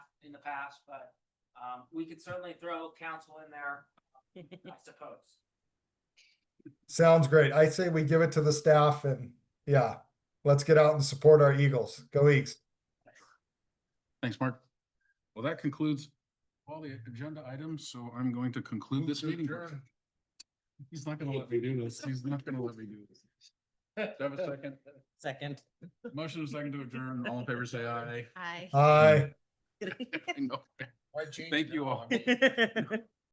the past, but, um, we could certainly throw council in there, I suppose. Sounds great. I say we give it to the staff and yeah, let's get out and support our Eagles. Go Eagles. Thanks, Mark. Well, that concludes all the agenda items, so I'm going to conclude this meeting. He's not gonna let me do this. He's not gonna let me do this. Do I have a second? Second. Motion is second to adjourn. All in favor, say aye. Hi. Aye. I know. Thank you all.